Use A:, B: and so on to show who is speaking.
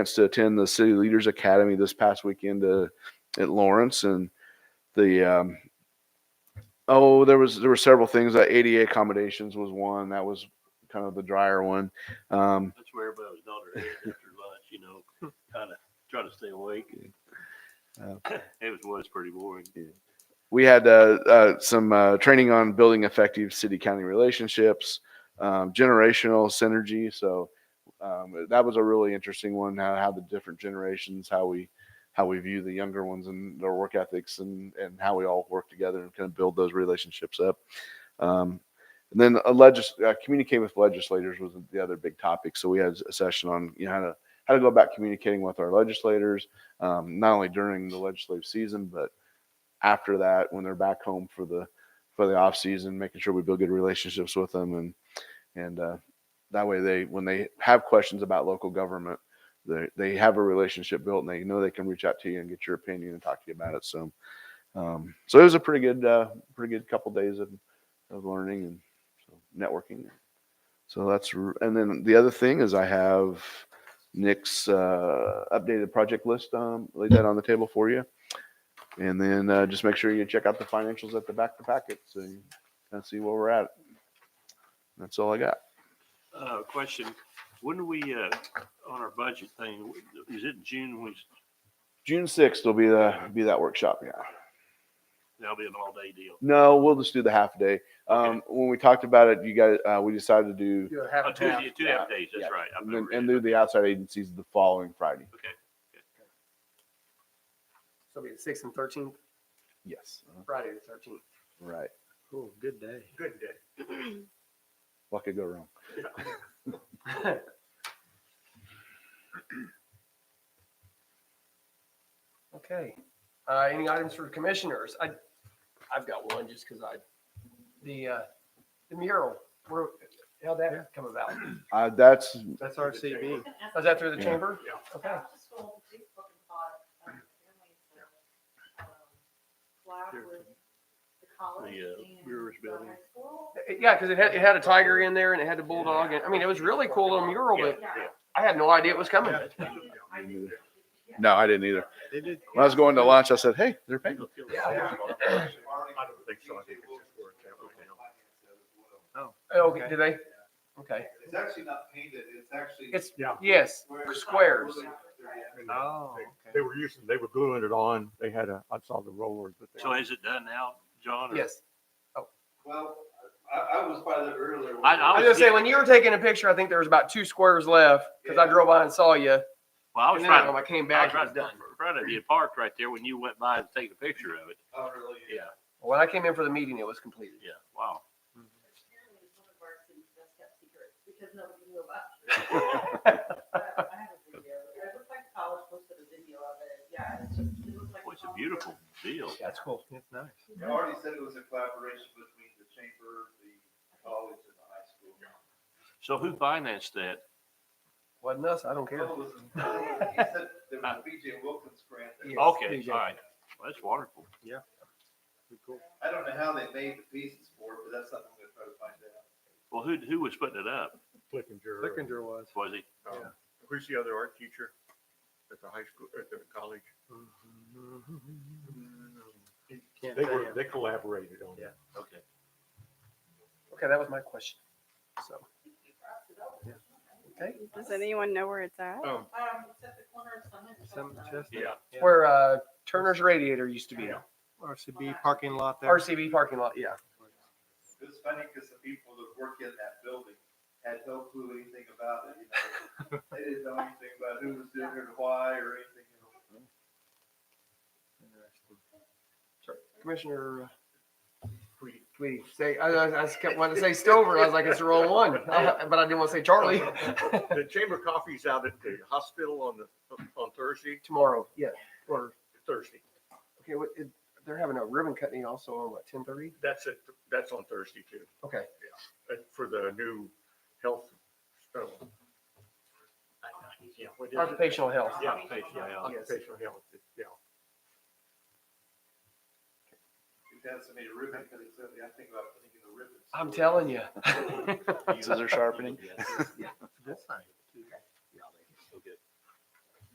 A: chance to attend the City Leaders Academy this past weekend uh, at Lawrence, and the um, oh, there was there were several things. Uh, ADA accommodations was one that was kind of the drier one. Um,
B: That's where everybody was nodding their head after lunch, you know, kind of trying to stay awake.
A: Yeah.
B: It was, was pretty boring.
A: we had uh, uh, some uh, training on building effective city county relationships, um, generational synergy. So um, that was a really interesting one. How, how the different generations, how we how we view the younger ones and their work ethics, and and how we all work together and kind of build those relationships up. Um, and then a legis- uh, communicating with legislators was the other big topic. So we had a session on you know how to how to go about communicating with our legislators, um, not only during the legislative season, but after that when they're back home for the for the off season, making sure we build good relationships with them and and uh, that way they when they have questions about local government, they they have a relationship built and they know they can reach out to you and get your opinion and talk to you about it. So um, so it was a pretty good uh, pretty good couple days of of learning and so networking. So that's r- and then the other thing is I have Nick's uh, updated project list. Um, laid that on the table for you. And then uh, just make sure you check out the financials at the back of the packet so you can see where we're at. That's all I got.
B: Uh, question, when do we, uh, on our budget thing, is it June when, we-
A: June sixth will be the be that workshop. Yeah.
B: that'll be an all-day deal?
A: No, we'll just do the half day. Um, When we talked about it, you guys, uh, we decided to do
C: Do a
B: Oh,
C: half
B: two,
C: and half. uh,
B: two half days, that's right. I
A: and, then,
B: remember
A: and
B: it.
A: do the outside agencies the following Friday.
C: So it'll be the sixth and thirteenth,
A: Yes. Uh-huh.
C: Friday the thirteenth.
A: Right.
C: Cool, good day. Good day.
A: What could go wrong?
C: Okay, uh, any items for commissioners? I, I've got one just because I, the, uh, the mural, where, how'd that come about?
A: Uh, that's
C: That's
B: RCB.
C: Was that through the
A: Yeah.
C: chamber?
B: Yeah.
C: Okay,
D: School Facebook and thought, um, families that, um, collab with the college
B: The, uh,
D: and
B: Brewers
D: the
B: Building.
D: high school.
C: Eh, yeah, because it had, it had a tiger in there and it had the bulldog, and, I mean, it was really cool little mural,
B: Yeah,
C: but
B: yeah.
C: I had no idea it was coming.
D: I just-
A: no, I didn't either. When I was going to lunch, I said, "Hey, they're paying."
C: Yeah.
B: I don't think so. I think it's just for a capital account.
C: Oh, Okay, did they? Okay,
E: It's actually not painted, it's actually.
C: it's,
F: Yeah.
C: yes, squares.
F: Oh. They were using, they were gluing it on. They had a, I saw the rollers, but
B: So
F: they,
B: is it done now, John? or-
C: yes.
E: Well, I, I was by there earlier.
B: I- I
C: I was gonna say, when you were taking a picture, I think there was about two squares left, because I drove by and saw you.
B: Well, I was
C: And then
B: trying,
C: when I came
B: I was
C: back, it was
B: right
C: done.
B: in front of you parked right there when you went by to take a picture of it.
E: Oh, really?
B: Yeah,
C: When I came in for the meeting, it was completed.
B: yeah, wow.
D: Apparently it's one of our city's best kept secrets because nobody knew about it. But I have a video. It looked like college posted a video of it. Yeah, it's just, it looks like.
B: Well, it's a
D: college.
B: beautiful deal.
C: That's cool. That's nice.
E: I already said it was a collaboration between the chamber, the college and the high school.
B: So who financed that?
C: Wasn't us, I don't care.
E: Well, it was- He said there was a BJ Wilkins grant. that-
C: Yes.
B: Okay,
C: BJ.
B: all right. Well, that's wonderful.
E: I don't know how they made the pieces for it, but that's something we're gonna try to find out.
B: Well, who, who was putting it up?
F: Flickinger.
C: was.
B: Was he?
F: Who's the other art teacher at the high school, at the college? They were, they collaborated on it.
B: Okay.
C: Okay, that was my question. So, okay,
G: Does anyone know where it's at?
F: Oh,
D: Um, it's at the corner of Summit. and Chestnut.
B: Yeah.
C: where, uh, Turner's Radiator used to be,
H: RCB parking lot there.
C: RCB parking lot, yeah.
E: It was funny because the people that work in that building had no clue anything about it, you know. They didn't know anything about who was doing it, or why, or anything. you know.
C: Sorry, Commissioner. uh, Tweedy, say, I, I I just kept wanting to say Stover, I was like, it's the wrong one, I- but I didn't want to say Charlie.
F: the chamber coffee's out at the hospital on the, on Thursday,
C: Tomorrow, yeah, or,
F: Thursday.
C: okay, what, it- they're having a ribbon cutting also on what, ten thirty?
F: That's it, that's on Thursday too,
C: Okay.
F: uh, for the new health. uh, yeah, what is it?
C: Occupational health.
F: Yeah, patient, yeah,
C: Yes.
F: occupational health, yeah.
E: We've had so many ribbon cuttings lately, I think about putting in the ribbons.
C: I'm telling you.
A: Scissor sharpening.
C: This thing.